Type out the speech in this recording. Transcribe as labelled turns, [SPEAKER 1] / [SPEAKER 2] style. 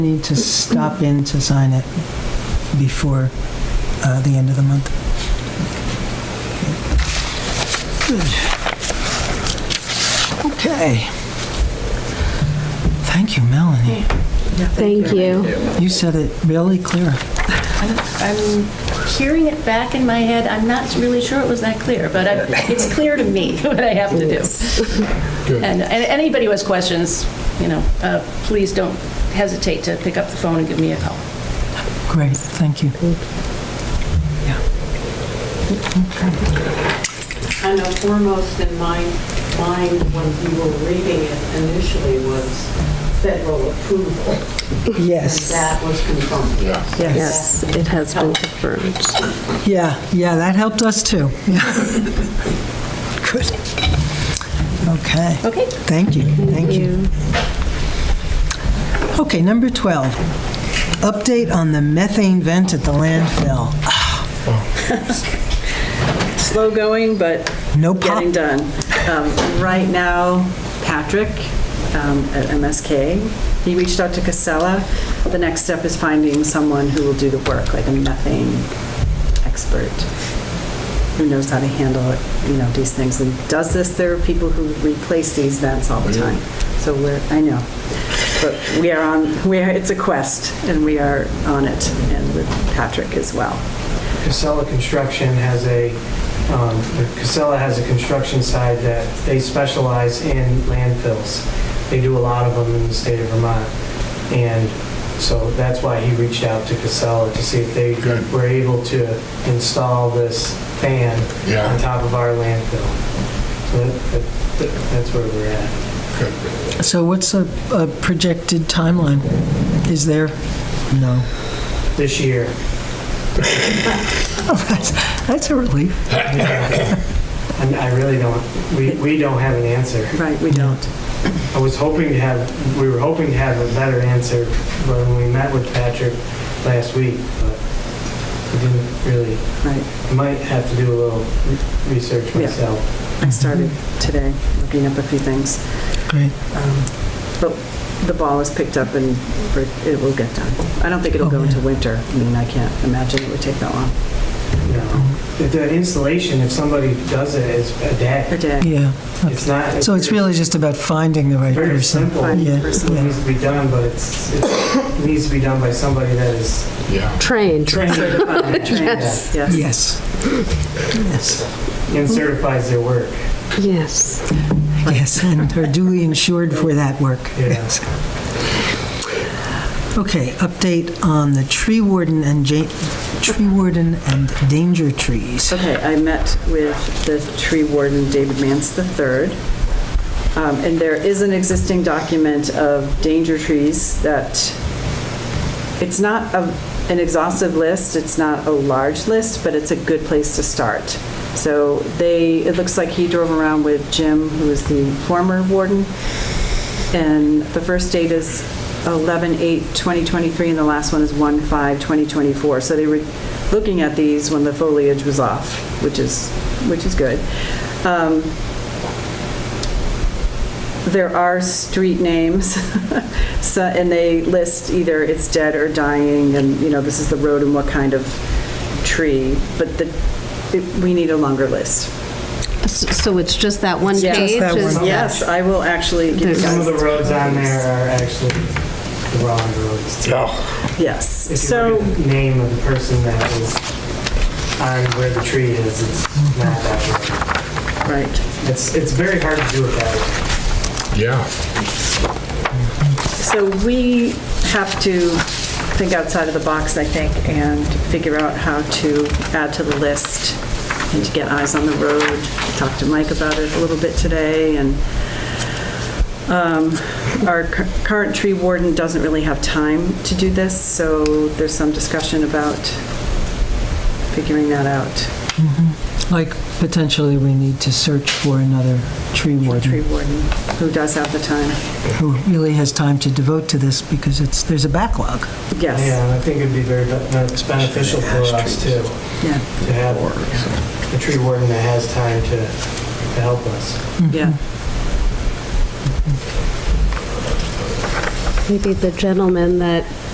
[SPEAKER 1] Need to stop in to sign it before uh, the end of the month. Good. Okay. Thank you, Melanie.
[SPEAKER 2] Thank you.
[SPEAKER 1] You said it really clear.
[SPEAKER 3] I'm hearing it back in my head. I'm not really sure it was that clear, but I- it's clear to me what I have to do. And and anybody who has questions, you know, uh, please don't hesitate to pick up the phone and give me a call.
[SPEAKER 1] Great, thank you.
[SPEAKER 4] I know foremost in my mind when you were reading it initially was federal approval. And
[SPEAKER 1] Yes.
[SPEAKER 4] that was confirmed. Yes.
[SPEAKER 2] Yes, it has been confirmed.
[SPEAKER 1] Yeah, yeah, that helped us too. Yeah. Good. Okay.
[SPEAKER 3] Okay?
[SPEAKER 1] Thank you, thank you. Okay, number 12, update on the methane vent at the landfill.
[SPEAKER 5] slow going, but
[SPEAKER 1] No pop.
[SPEAKER 5] getting done. Um, Right now, Patrick um, at MSK, he reached out to Casella. The next step is finding someone who will do the work, like a methane expert, who knows how to handle, it, you know, these things. And does this, there are people who replace these vents all the time. So we're, I know, but we are on, we are, it's a quest, and we are on it, and with Patrick as well.
[SPEAKER 6] Casella Construction has a, um, Casella has a construction side that they specialize in landfills. They do a lot of them in the state of Vermont. And so that's why he reached out to Casella to see if they
[SPEAKER 7] Good.
[SPEAKER 6] were able to install this fan
[SPEAKER 7] Yeah.
[SPEAKER 6] on top of our landfill. So that- that- that's where we're at.
[SPEAKER 1] So what's a a projected timeline? Is there? No.
[SPEAKER 6] This year,
[SPEAKER 1] Oh, That's that's a relief.
[SPEAKER 6] And I really don't, we we don't have an answer.
[SPEAKER 5] Right, we don't.
[SPEAKER 6] I was hoping to have, we were hoping to have a better answer when we met with Patrick last week, but we didn't really,
[SPEAKER 5] Right.
[SPEAKER 6] I might have to do a little re- research
[SPEAKER 5] Yeah.
[SPEAKER 6] myself.
[SPEAKER 5] I started today, looking up a few things.
[SPEAKER 1] Great.
[SPEAKER 5] Um, But the ball is picked up and we're- it will get done. I don't think it'll go into winter. I mean, I can't imagine it would take that long.
[SPEAKER 6] you know. If The installation, if somebody does it, it's a
[SPEAKER 5] A
[SPEAKER 6] day.
[SPEAKER 5] day.
[SPEAKER 1] Yeah.
[SPEAKER 6] It's not.
[SPEAKER 1] So it's really just about finding the right
[SPEAKER 6] Very
[SPEAKER 1] person.
[SPEAKER 6] simple.
[SPEAKER 5] Fine
[SPEAKER 6] It
[SPEAKER 1] Yeah,
[SPEAKER 5] person.
[SPEAKER 1] yeah.
[SPEAKER 6] needs to be done, but it's, it needs to be done by somebody that is
[SPEAKER 7] Yeah.
[SPEAKER 2] Trained.
[SPEAKER 6] trained
[SPEAKER 5] Yes. Yes.
[SPEAKER 1] Yes. Yes.
[SPEAKER 6] and certifies their work.
[SPEAKER 2] Yes.
[SPEAKER 1] Yes, and are duly insured for that work.
[SPEAKER 6] Yeah.
[SPEAKER 1] Yes. Okay, update on the tree warden and ja- tree warden and danger trees.
[SPEAKER 5] Okay, I met with the tree warden, David Mance III. Um, And there is an existing document of danger trees that it's not a- an exhaustive list, it's not a large list, but it's a good place to start. So they, it looks like he drove around with Jim, who is the former warden, and the first date is 11/8/2023, and the last one is 1/5/2024. So they were looking at these when the foliage was off, which is, which is good. Um, there are street names, so- and they list either it's dead or dying, and, you know, this is the road and what kind of tree, but the, it- we need a longer list.
[SPEAKER 2] So it's just that one
[SPEAKER 5] Yeah.
[SPEAKER 1] Just
[SPEAKER 2] page?
[SPEAKER 1] that
[SPEAKER 2] is-
[SPEAKER 1] one.
[SPEAKER 5] Yes, I will actually give you
[SPEAKER 2] There's-
[SPEAKER 6] Some of
[SPEAKER 5] guys,
[SPEAKER 6] the roads on there are actually the wrong roads.
[SPEAKER 7] Oh,
[SPEAKER 5] yes.
[SPEAKER 6] If you
[SPEAKER 5] So,
[SPEAKER 6] look at the name of the person that was on where the tree is, it's not that
[SPEAKER 5] right.
[SPEAKER 6] way. It's, it's very hard to do it that way.
[SPEAKER 7] yeah.
[SPEAKER 5] So we have to think outside of the box, I think, and figure out how to add to the list and to get eyes on the road. Talked to Mike about it a little bit today, and um, our cur- current tree warden doesn't really have time to do this, so there's some discussion about figuring that out,
[SPEAKER 1] Like potentially we need to search for another tree
[SPEAKER 5] tree
[SPEAKER 1] warden
[SPEAKER 5] warden, who does have the time.
[SPEAKER 1] who really has time to devote to this because it's, there's a backlog.
[SPEAKER 5] Yes,
[SPEAKER 6] Yeah, I think it'd be very be- beneficial for us too,
[SPEAKER 5] yeah.
[SPEAKER 6] to have a tree warden that has time to, to help us.
[SPEAKER 5] Yeah.
[SPEAKER 2] maybe the gentleman that